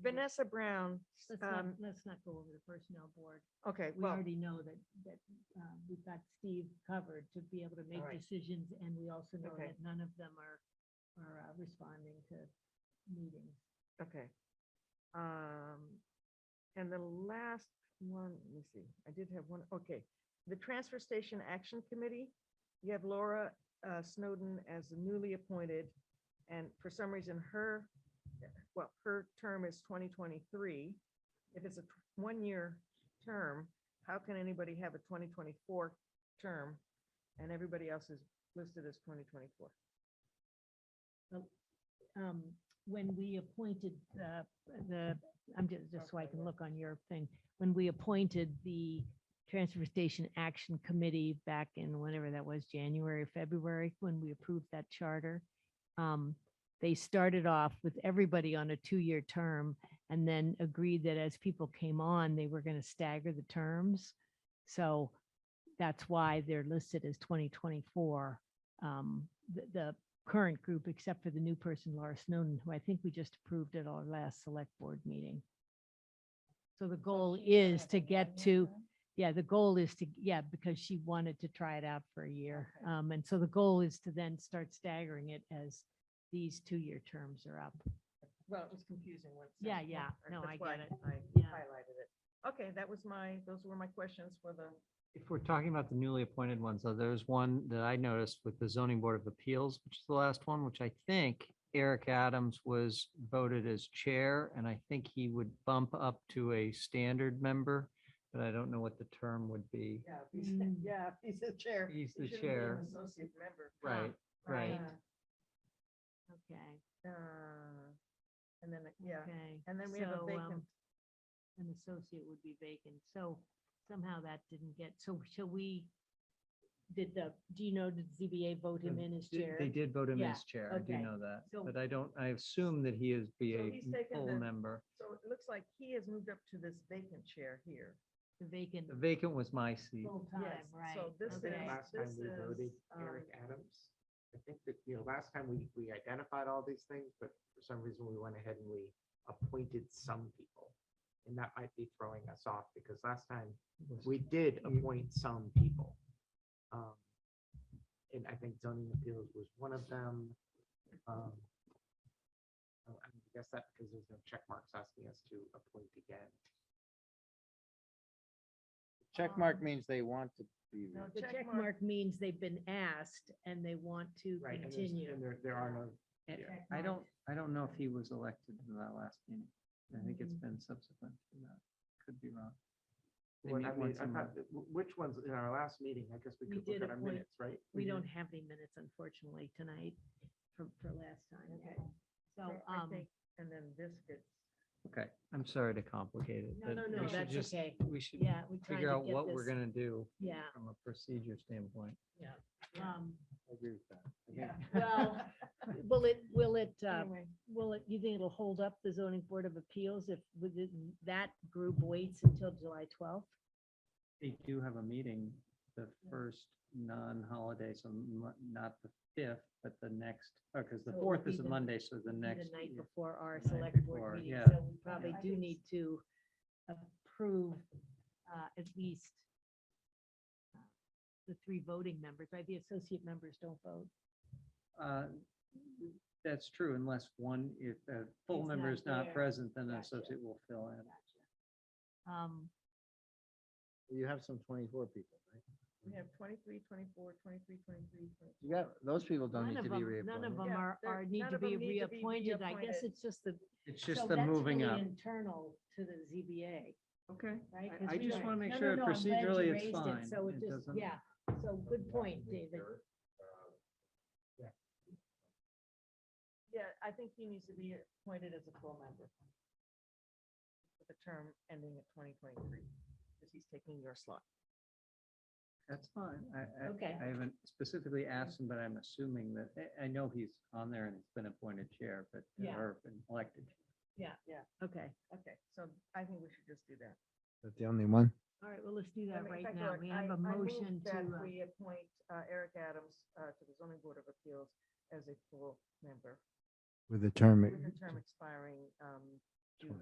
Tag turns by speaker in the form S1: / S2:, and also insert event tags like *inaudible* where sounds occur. S1: Vanessa Brown,
S2: Let's not,
S1: um,
S2: let's not go over the personnel board.
S1: okay,
S2: We
S1: well,
S2: already know that, that uh, we've got Steve covered to be able to make
S1: right.
S2: decisions, and we also know
S1: Okay.
S2: that none of them are, are uh, responding to meetings.
S1: okay. Um, and the last one, let me see, I did have one, okay. The Transfer Station Action Committee, you have Laura uh, Snowden as the newly appointed. And for some reason, her, well, her term is twenty twenty-three. If it's a tw- one-year term, how can anybody have a twenty twenty-four term? And everybody else is listed as twenty twenty-four.
S2: um, when we appointed the, the, I'm just, just so I can look on your thing, when we appointed the Transfer Station Action Committee back in whenever that was, January, February, when we approved that charter, um, they started off with everybody on a two-year term and then agreed that as people came on, they were going to stagger the terms. So that's why they're listed as 2024. Um, the, the current group, except for the new person, Laura Snowden, who I think we just approved at our last select board meeting. So the goal is to get to, yeah, the goal is to, yeah, because she wanted to try it out for a year.
S1: Okay.
S2: Um, and so the goal is to then start staggering it as these two-year terms are up.
S1: Well, it was confusing once.
S2: Yeah, yeah. No, I get it.
S1: I
S2: Yeah.
S1: highlighted it. Okay, that was my, those were my questions for the,
S3: If we're talking about the newly appointed ones, though, there's one that I noticed with the zoning board of appeals, which is the last one, which I think Eric Adams was voted as chair, and I think he would bump up to a standard member, but I don't know what the term would be.
S1: yeah, if he's-
S2: Mm.
S1: yeah, if he's the chair.
S3: He's
S1: he
S3: the
S1: shouldn't be an
S3: chair.
S1: Associate member.
S3: Right, right.
S2: Okay,
S1: Uh, uh, And then, yeah,
S2: okay.
S1: and then we have a
S2: So,
S1: vacant,
S2: um, An associate would be vacant, so somehow that didn't get, so shall we? Did the, do you know, did ZBA vote him in as
S3: They-
S2: chair?
S3: They did vote him
S2: Yeah,
S3: as chair, I do
S2: okay.
S3: know that,
S2: So-
S3: but I don't, I assume that he is be
S1: So
S3: a
S1: he's taken
S3: full
S1: the-
S3: member.
S1: so it looks like he has moved up to this vacant chair here.
S2: The vacant
S3: The vacant was my seat.
S2: full-time,
S1: Yes,
S2: right?
S1: So this is,
S2: okay.
S4: Last time
S1: this
S4: we voted
S1: is, um,
S4: Eric Adams. I think that, you know, last time we, we identified all these things, but for some reason we went ahead and we appointed some people. And that might be throwing us off because last time
S3: Was-
S4: we did
S3: You-
S4: appoint some people. Um, And I think zoning appeals was one of them. Um, oh, I guess that because there's no check marks asking us to appoint again.
S5: Check mark means they want to be.
S1: No,
S5: re-
S2: Um, The
S1: check
S2: check
S1: mark.
S2: mark means they've been asked and they want to
S4: Right, and there's-
S2: continue.
S4: and there, there are no,
S3: And
S4: Yeah.
S3: I don't, I don't know if he was elected to that last meeting. I think it's
S2: Mhm.
S3: been subsequent to that. Could be wrong. They
S4: Well,
S3: meet
S4: I mean,
S3: once a
S4: I
S3: month.
S4: thought, that- wh- which ones in our last meeting, I guess we
S2: We
S4: could
S2: did
S4: look at our
S2: appoint-
S4: minutes, right?
S2: We
S3: Mm-hmm.
S2: don't have any minutes unfortunately tonight for, for last time.
S1: Okay.
S2: So,
S1: so I
S2: um,
S1: think- and then this gets,
S3: Okay, I'm sorry to complicate it.
S2: no,
S3: but
S2: no,
S3: we
S2: no,
S3: should
S2: that's
S3: just-
S2: okay.
S3: We should
S2: Yeah, we tried to
S3: figure out
S2: get
S3: what we're
S2: this-
S3: gonna do.
S2: Yeah.
S3: From a procedure standpoint.
S1: *laughs*
S2: Um,
S5: I agree with that. I think
S1: yeah.
S2: well, will it, will it, uh,
S1: *laughs* Anyway,
S2: Will it, you think it'll hold up the zoning board of appeals if with it- that group waits until July twelfth?
S3: They do have a meeting the first non-holiday, so mo- not the fifth, but the next, oh, because the
S2: So it would
S3: fourth
S2: be
S3: is a
S2: the-
S3: Monday, so
S2: The
S3: the next.
S2: night
S3: yeah.
S2: before our
S3: night
S2: select
S3: before,
S2: board meeting,
S3: yeah.
S2: so we probably
S1: I
S2: do
S1: think-
S2: need to approve uh, at least uh, the three voting members, right? The associate members don't vote.
S3: Uh, That's true, unless one, if a
S2: He's
S3: full member
S2: not
S3: is not
S2: there.
S3: present, then an
S2: Gotcha.
S3: associate will fill in.
S2: Um,
S5: You have some twenty-four people, right?
S1: we have 23, 24, 23, 23, 24.
S5: You got, those people don't
S2: None
S5: need
S2: of
S5: to be
S2: them, none of
S5: reappointed.
S2: them
S1: Yeah,
S2: are,
S1: they're-
S2: are need
S1: none
S2: to
S1: of 'em
S2: be
S1: need to be
S2: reappointed. I guess
S1: reappointed.
S2: it's just the.
S3: It's
S2: so
S3: just the
S2: that's
S3: moving
S2: really
S3: up.
S2: Internal to the ZBA.
S1: Okay.
S2: right?
S3: I-
S2: 'Cause
S3: I
S2: we
S3: just
S2: don't-
S3: wanna make
S2: No, no,
S3: sure
S2: no, I'm glad you
S3: procedurally it's
S2: raised it,
S3: fine.
S2: So it
S3: It
S2: just,
S3: doesn't-
S2: yeah, so good point, David.
S4: uh,
S1: Yeah, I think he needs to be appointed as a full member. With a term ending at twenty twenty-three, because he's taking your slot.
S3: That's fine. I, I,
S2: Okay.
S3: I haven't specifically asked him, but I'm assuming that, I, I know he's on there and he's been appointed chair, but,
S2: Yeah.
S3: or been elected.
S2: Okay,
S1: Okay, so I think we should just do that.
S5: That's the only one?
S2: all right, well, let's do
S1: I
S2: that
S1: mean, in
S2: right
S1: fact,
S2: now.
S1: Eric,
S2: We
S1: I-
S2: have
S1: I
S2: a
S1: move
S2: motion to,
S1: that
S2: uh,
S1: We appoint uh, Eric Adams uh, to the zoning board of appeals as a full member
S5: With the term,
S1: with a term expiring um,